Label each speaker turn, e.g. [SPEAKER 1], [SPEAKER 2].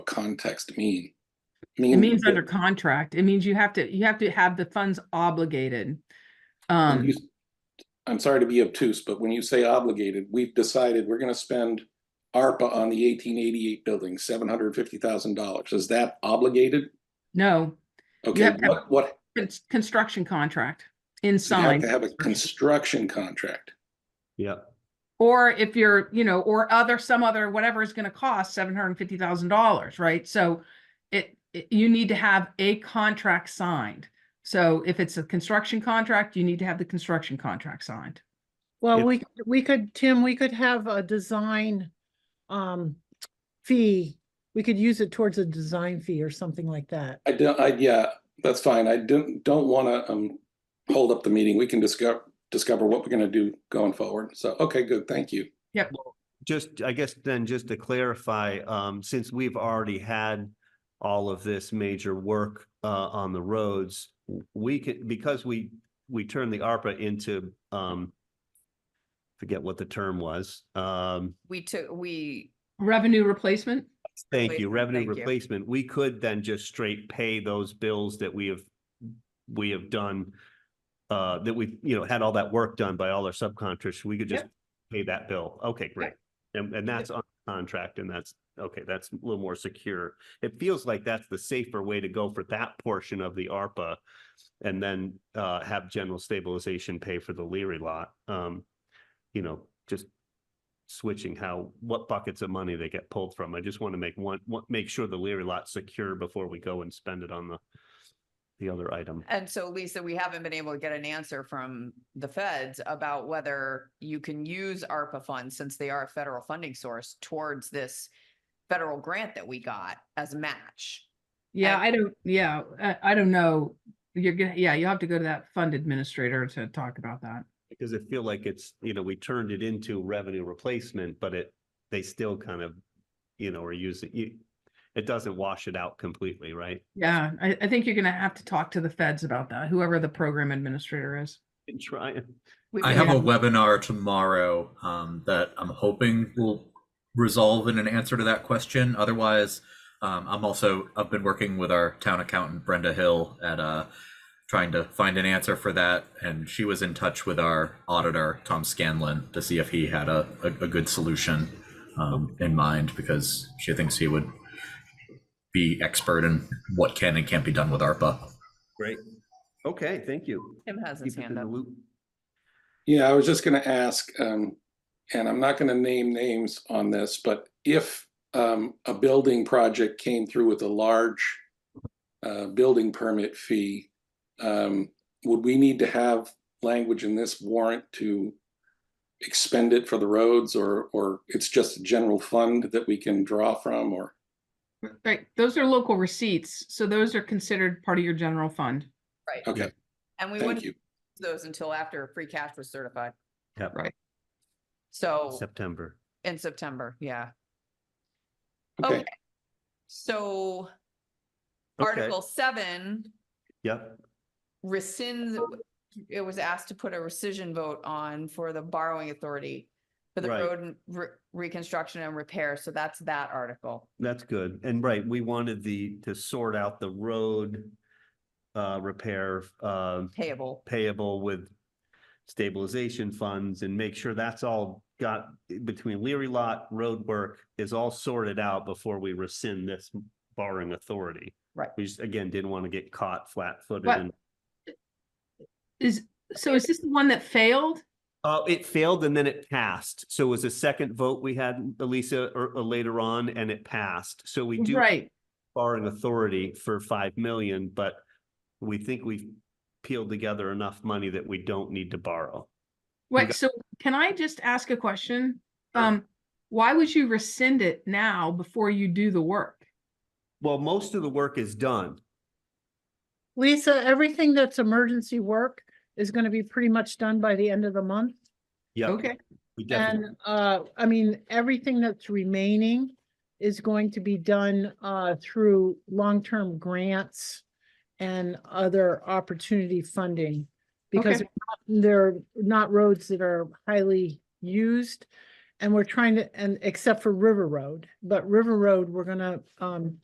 [SPEAKER 1] context mean?
[SPEAKER 2] It means under contract. It means you have to, you have to have the funds obligated.
[SPEAKER 1] When
[SPEAKER 2] Um,
[SPEAKER 1] you- I'm sorry to be obtuse, but when you say obligated, we've decided we're gonna spend ARPA on the eighteen eighty-eight building, seven hundred and fifty thousand dollars. Is that obligated?
[SPEAKER 2] no,
[SPEAKER 1] Okay,
[SPEAKER 2] have to have-
[SPEAKER 1] what, what,
[SPEAKER 2] it's construction contract
[SPEAKER 1] you have
[SPEAKER 2] inside.
[SPEAKER 1] to have a construction contract.
[SPEAKER 3] Yeah,
[SPEAKER 2] Or if you're, you know, or other, some other, whatever is gonna cost seven hundred and fifty thousand dollars, right? So it, it- you need to have a contract signed. So if it's a construction contract, you need to have the construction contract signed.
[SPEAKER 4] Well,
[SPEAKER 3] Yeah.
[SPEAKER 4] we, could- we could, Tim, we could have a design um fee. We could use it towards a design fee or something like that.
[SPEAKER 1] I don't, I, yeah, that's fine. I don't, don't wanna, um, hold up the meeting. We can discover, discover what we're gonna do going forward. So, okay, good, thank you.
[SPEAKER 3] just, I guess then just to clarify, um, since we've already had all of this major work, uh, on the roads, w- we can, because we, we turned the ARPA into, um, forget what the term was, um,
[SPEAKER 5] We took, we,
[SPEAKER 2] Revenue replacement?
[SPEAKER 3] Thank you.
[SPEAKER 5] Replacement,
[SPEAKER 3] Revenue
[SPEAKER 5] thank you.
[SPEAKER 3] replacement. We could then just straight pay those bills that we have, we have done. Uh, that we, you know, had all that work done by all our subcontractors. We could just pay that bill. Okay, great. And, and that's on contract and that's, okay, that's a little more secure. It feels like that's the safer way to go for that portion of the ARPA. And then, uh, have general stabilization pay for the Leary lot. Um, you know, just switching how, what buckets of money they get pulled from. I just want to make one, one- make sure the Leary lot's secure before we go and spend it on the, the other item.
[SPEAKER 5] and so Lisa, we haven't been able to get an answer from the feds about whether you can use ARPA funds, since they are a federal funding source, towards this federal grant that we got as a match.
[SPEAKER 2] Yeah,
[SPEAKER 5] And-
[SPEAKER 2] I don't, yeah, I, I don't know. You're gonna, yeah, you'll have to go to that fund administrator to talk about that.
[SPEAKER 3] Because I feel like it's, you know, we turned it into revenue replacement, but it, they still kind of, you know, are using, you, it doesn't wash it out completely, right?
[SPEAKER 2] Yeah, I, I think you're gonna have to talk to the feds about that, whoever the program administrator is.
[SPEAKER 3] And try, it.
[SPEAKER 5] We've
[SPEAKER 6] I
[SPEAKER 5] been-
[SPEAKER 6] have a webinar tomorrow um, that I'm hoping will resolve in an answer to that question. Otherwise, um, I'm also I've been working with our town accountant Brenda Hill at uh, trying to find an answer for that, and she was in touch with our auditor Tom Scanlon to see if he had a a, a good solution um, in mind because she thinks he would be expert in what can and can't be done with ARPA.
[SPEAKER 3] Great. Okay, thank you.
[SPEAKER 5] Tim has his
[SPEAKER 3] Keep us in
[SPEAKER 5] hand
[SPEAKER 3] the
[SPEAKER 5] up.
[SPEAKER 3] loop.
[SPEAKER 1] Yeah, I was just gonna ask, um, and I'm not gonna name names on this, but if um, a building project came through with a large uh, building permit fee, um, would we need to have language in this warrant to expend it for the roads or, or it's just a general fund that we can draw from or?
[SPEAKER 2] Right, those are local receipts, so those are considered part of your general fund.
[SPEAKER 5] Right,
[SPEAKER 1] Okay,
[SPEAKER 5] and we
[SPEAKER 1] Oh, thank
[SPEAKER 5] wouldn't
[SPEAKER 1] you.
[SPEAKER 5] use those until after free cash was certified.
[SPEAKER 3] Yep.
[SPEAKER 2] Right.
[SPEAKER 5] So
[SPEAKER 3] September.
[SPEAKER 5] in September, yeah.
[SPEAKER 1] Okay,
[SPEAKER 5] Okay. So
[SPEAKER 3] Okay.
[SPEAKER 5] Article seven
[SPEAKER 3] Yep.
[SPEAKER 5] rescinds, it was asked to put a rescission vote on for the borrowing authority for the
[SPEAKER 3] Right.
[SPEAKER 5] road and re- reconstruction and repair. So that's that article.
[SPEAKER 3] That's good. And right, we wanted the, to sort out the road uh, repair, uh,
[SPEAKER 5] Payable.
[SPEAKER 3] payable with stabilization funds and make sure that's all got between Leary Lot, road work is all sorted out before we rescind this borrowing authority.
[SPEAKER 5] Right.
[SPEAKER 3] We just, again, didn't want to get caught flat footed
[SPEAKER 2] What-
[SPEAKER 3] and,
[SPEAKER 2] Is, so is this the one that failed?
[SPEAKER 3] oh, it failed and then it passed. So it was a second vote we had, Elisa, or or later on, and it passed. So we do
[SPEAKER 2] Right,
[SPEAKER 3] borrowing authority for five million, but we think we've peeled together enough money that we don't need to borrow.
[SPEAKER 2] wait,
[SPEAKER 3] got-
[SPEAKER 2] so can I just ask a question?
[SPEAKER 3] Sure.
[SPEAKER 2] Um, why would you rescind it now before you do the work?
[SPEAKER 3] Well, most of the work is done.
[SPEAKER 4] Lisa, everything that's emergency work is gonna be pretty much done by the end of the month.
[SPEAKER 3] Yeah.
[SPEAKER 2] Okay,
[SPEAKER 3] We definitely,
[SPEAKER 4] And uh, I mean, everything that's remaining is going to be done uh through long-term grants and other opportunity funding. Because
[SPEAKER 2] Okay.
[SPEAKER 4] they're not roads that are highly used. And we're trying to, and except for River Road, but River Road, we're gonna um